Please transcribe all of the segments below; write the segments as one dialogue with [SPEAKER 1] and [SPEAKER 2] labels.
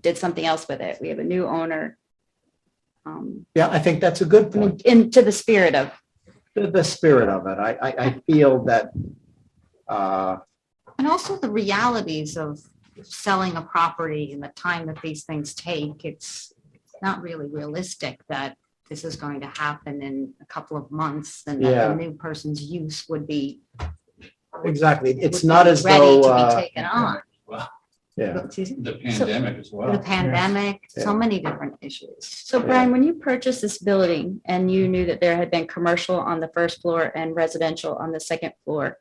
[SPEAKER 1] did something else with it. We have a new owner. Um,
[SPEAKER 2] Yeah, I think that's a good point.
[SPEAKER 1] into the spirit of,
[SPEAKER 2] The, the spirit of it. I, I, I feel that, uh,
[SPEAKER 3] And also the realities of selling a property and the time that these things take. It's not really realistic that this is going to happen in a couple of months and that
[SPEAKER 2] Yeah.
[SPEAKER 3] the new person's use would be.
[SPEAKER 2] exactly. It's
[SPEAKER 3] would
[SPEAKER 2] not
[SPEAKER 3] be
[SPEAKER 2] as
[SPEAKER 3] ready
[SPEAKER 2] though,
[SPEAKER 3] to be
[SPEAKER 2] uh,
[SPEAKER 3] Taken on.
[SPEAKER 2] yeah,
[SPEAKER 3] Excuse me?
[SPEAKER 4] The
[SPEAKER 3] So-
[SPEAKER 4] pandemic as
[SPEAKER 3] The
[SPEAKER 4] well.
[SPEAKER 3] pandemic,
[SPEAKER 2] Yeah.
[SPEAKER 3] so many different issues.
[SPEAKER 1] so Brian, when you purchased this building and you knew that there had been commercial on the first floor and residential on the second floor,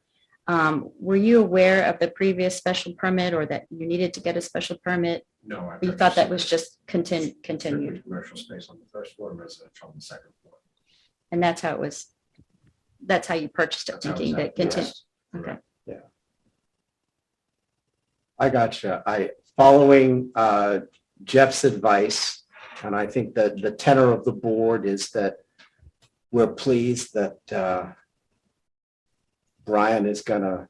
[SPEAKER 1] um, were you aware of the previous special permit or that you needed to get a special permit?
[SPEAKER 5] No. I
[SPEAKER 1] Or You thought that was
[SPEAKER 5] purchased
[SPEAKER 1] just contin- continued
[SPEAKER 5] Commercial space on the first floor, residential on the second floor.
[SPEAKER 1] and that's how it was, that's how you purchased it,
[SPEAKER 5] That's how
[SPEAKER 1] thinking that
[SPEAKER 5] it's
[SPEAKER 1] continued.
[SPEAKER 5] addressed. Correct.
[SPEAKER 2] I gotcha. I, following, uh, Jeff's advice, and I think that the tenor of the board is that we're pleased that, uh, Brian is gonna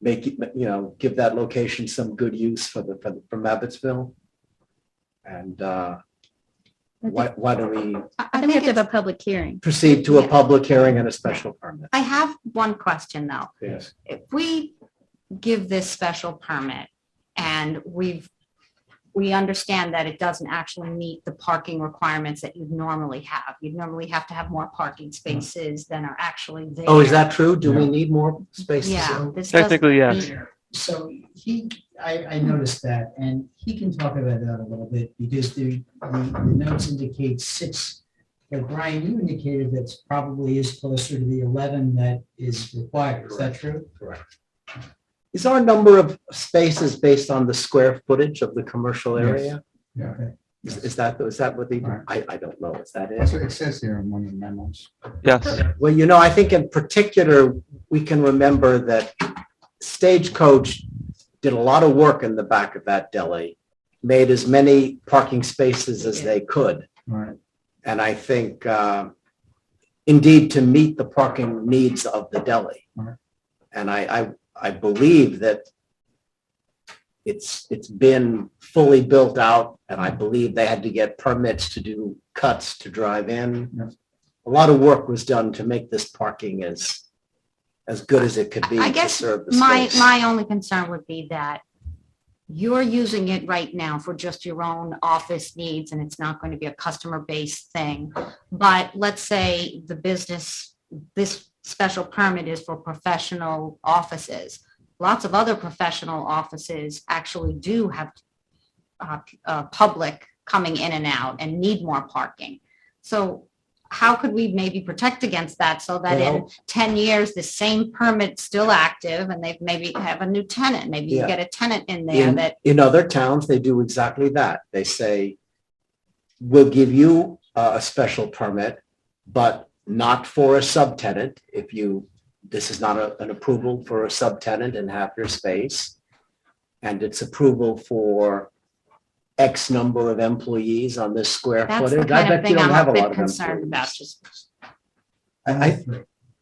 [SPEAKER 2] make, it, you know, give that location some good use for the, for the- from Abbotsville. And, uh, why, why do we
[SPEAKER 3] I-
[SPEAKER 1] I
[SPEAKER 3] I
[SPEAKER 1] think we have
[SPEAKER 3] think
[SPEAKER 1] to
[SPEAKER 3] it's,
[SPEAKER 1] have a public hearing.
[SPEAKER 2] proceed to a
[SPEAKER 3] Yeah.
[SPEAKER 2] public hearing and a special permit.
[SPEAKER 3] I have one question though.
[SPEAKER 2] Yes.
[SPEAKER 3] if we give this special permit and we've, we understand that it doesn't actually meet the parking requirements that you'd normally have. You'd normally have to have more parking spaces than are actually there.
[SPEAKER 2] Mm-hmm. Oh, is that true? Do we need more spaces?
[SPEAKER 3] Yeah. this doesn't
[SPEAKER 6] Technically, yes.
[SPEAKER 3] meet-
[SPEAKER 7] So he, I, I noticed that, and he can talk about that a little bit, because the, the the notes indicate six. But Brian, you indicated that probably is closer to the eleven that is required, is that true?
[SPEAKER 2] Is our number of spaces based on the square footage of the commercial
[SPEAKER 8] Yes.
[SPEAKER 2] area?
[SPEAKER 8] Yeah.
[SPEAKER 7] Okay.
[SPEAKER 2] Is is that, is that what the,
[SPEAKER 8] Right.
[SPEAKER 2] I, I don't know, is that
[SPEAKER 8] That's
[SPEAKER 2] it?
[SPEAKER 8] what it says here in one of the memos.
[SPEAKER 6] Yes.
[SPEAKER 2] Well, you know, I think in particular, we can remember that Stagecoach did a lot of work in the back of that deli, made as many parking spaces as they could.
[SPEAKER 8] Right.
[SPEAKER 2] And I think, uh, indeed, to meet the parking needs of the deli.
[SPEAKER 8] Right.
[SPEAKER 2] And I, I, I believe that it's, it's been fully built out, and I believe they had to get permits to do cuts to drive in.
[SPEAKER 8] Yes.
[SPEAKER 2] A lot of work was done to make this parking as, as good as it could be
[SPEAKER 3] I
[SPEAKER 2] to
[SPEAKER 3] guess
[SPEAKER 2] serve the
[SPEAKER 3] My,
[SPEAKER 2] space.
[SPEAKER 3] my only concern would be that you're using it right now for just your own office needs and it's not going to be a customer-based thing. But let's say the business, this special permit is for professional offices. Lots of other professional offices actually do have uh, uh, public coming in and out and need more parking. So how could we maybe protect against that so that in
[SPEAKER 2] Well,
[SPEAKER 3] 10 years, the same permit's still active and they've maybe have a new tenant, maybe you
[SPEAKER 2] Yeah.
[SPEAKER 3] get a tenant in
[SPEAKER 2] Yeah.
[SPEAKER 3] there that,
[SPEAKER 2] in other towns, they do exactly that. They say, we'll give you a, a special permit, but not for a subtenant. If you, this is not a- an approval for a subtenant and half your space. And it's approval for X number of employees on this square
[SPEAKER 3] that's the
[SPEAKER 2] footage. I
[SPEAKER 3] kind of
[SPEAKER 2] bet you
[SPEAKER 3] thing
[SPEAKER 2] don't have
[SPEAKER 3] I'm
[SPEAKER 2] a
[SPEAKER 3] a
[SPEAKER 2] lot
[SPEAKER 3] bit
[SPEAKER 2] of
[SPEAKER 3] concerned about,
[SPEAKER 2] employees.
[SPEAKER 3] just,
[SPEAKER 2] I, I,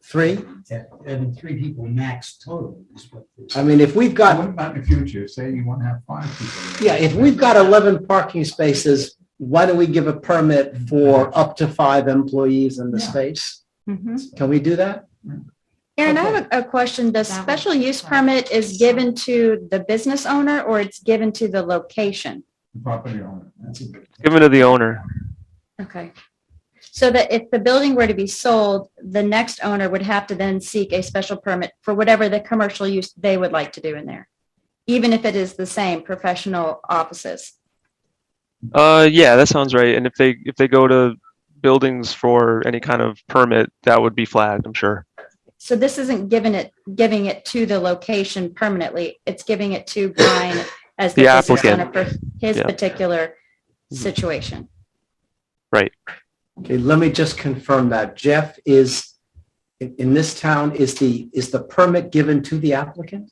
[SPEAKER 7] Three.
[SPEAKER 2] three?
[SPEAKER 7] Yeah, I mean, three people max total is what. this-
[SPEAKER 2] I mean, if we've got
[SPEAKER 8] What about in the future? Say you want to have five people.
[SPEAKER 2] Yeah,
[SPEAKER 8] there.
[SPEAKER 2] if we've got eleven parking spaces, why don't we give a permit for up to five employees in the
[SPEAKER 8] Yeah.
[SPEAKER 2] space?
[SPEAKER 3] mm-hmm.
[SPEAKER 2] Can we do that?
[SPEAKER 1] Aaron, I have a a question. The
[SPEAKER 3] That
[SPEAKER 1] special
[SPEAKER 3] one.
[SPEAKER 1] use permit is given to the business owner or it's given to the location?
[SPEAKER 8] The Property owner. That's a good.
[SPEAKER 6] Given to the owner.
[SPEAKER 1] Okay. So that if the building were to be sold, the next owner would have to then seek a special permit for whatever the commercial use they would like to do in there, even if it is the same professional offices.
[SPEAKER 6] Uh, yeah, that sounds right. And if they if they go to buildings for any kind of permit, that would be flagged, I'm sure.
[SPEAKER 1] So this isn't giving it, giving it to the location permanently. It's giving it to Brian as the
[SPEAKER 6] The
[SPEAKER 1] business owner
[SPEAKER 6] applicant.
[SPEAKER 1] for his
[SPEAKER 6] Yeah.
[SPEAKER 1] particular
[SPEAKER 6] Mhm.
[SPEAKER 1] situation.
[SPEAKER 2] Okay, let me just confirm that. Jeff is, in, in this town, is the, is the permit given to the applicant?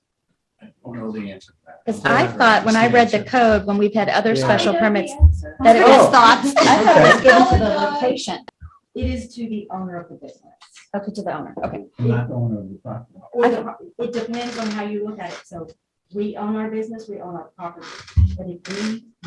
[SPEAKER 4] I don't know the answer to that.
[SPEAKER 1] Because I thought when Ah, I read the code, when we've had other
[SPEAKER 2] Yeah.
[SPEAKER 1] special permits, that
[SPEAKER 3] that
[SPEAKER 1] it
[SPEAKER 3] it
[SPEAKER 1] was
[SPEAKER 2] Oh.
[SPEAKER 3] was thoughts.
[SPEAKER 1] I thought it was
[SPEAKER 2] Okay.
[SPEAKER 1] given to the location,
[SPEAKER 9] It is to the owner of the business.
[SPEAKER 1] okay, to the owner, okay.
[SPEAKER 8] Not the owner of the property.
[SPEAKER 9] Or the- it depends on how you look at it. So
[SPEAKER 3] we own our business, we own our property. But if we